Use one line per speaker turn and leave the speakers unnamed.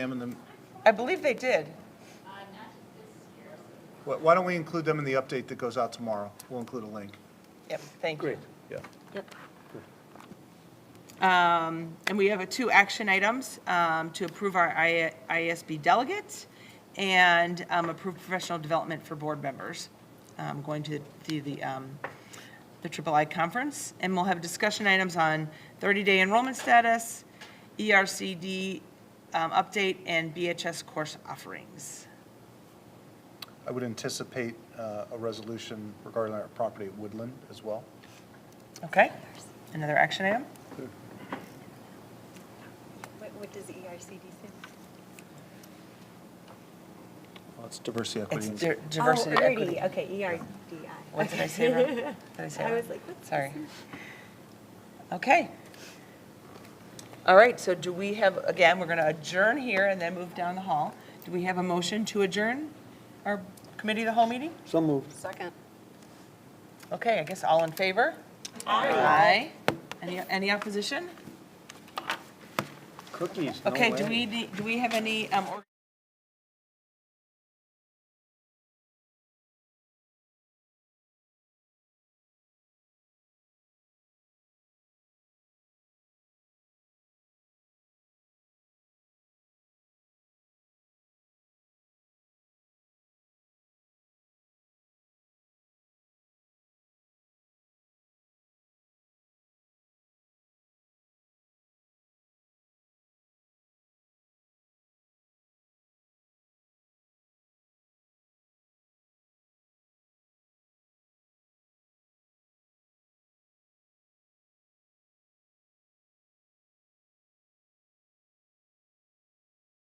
them in the,
I believe they did.
why- why don't we include them in the update that goes out tomorrow? We'll include a link.
Yep, thank you.
Yeah.
Um, And we have uh, two action items, um, to approve our I- IASB delegates and um, approve professional development for board members, um, going to the, the, um, the Triple I Conference. And we'll have discussion items on 30-day enrollment status, E ERCD um, update, and BHS course offerings.
I would anticipate uh, a resolution regarding our property at Woodland as well.
Okay, another action item?
What, what does E ERCD stand for?
Well, it's diversity,
It's
equity, and
di- diversity
oh,
equity.
ERD. Okay, ERDI.
What did I say wrong? Did I say
I
wrong?
was like, what's
Sorry. Okay. All right, so do we have, again, we're going to adjourn here and then move down the hall. Do we have a motion to adjourn our committee of the whole meeting?
So moved.
Second.
Okay, I guess all in favor? Aye. Aye. Any, any opposition?
Cookies, no
Okay, do
way.
we, need- do we have any, um, or-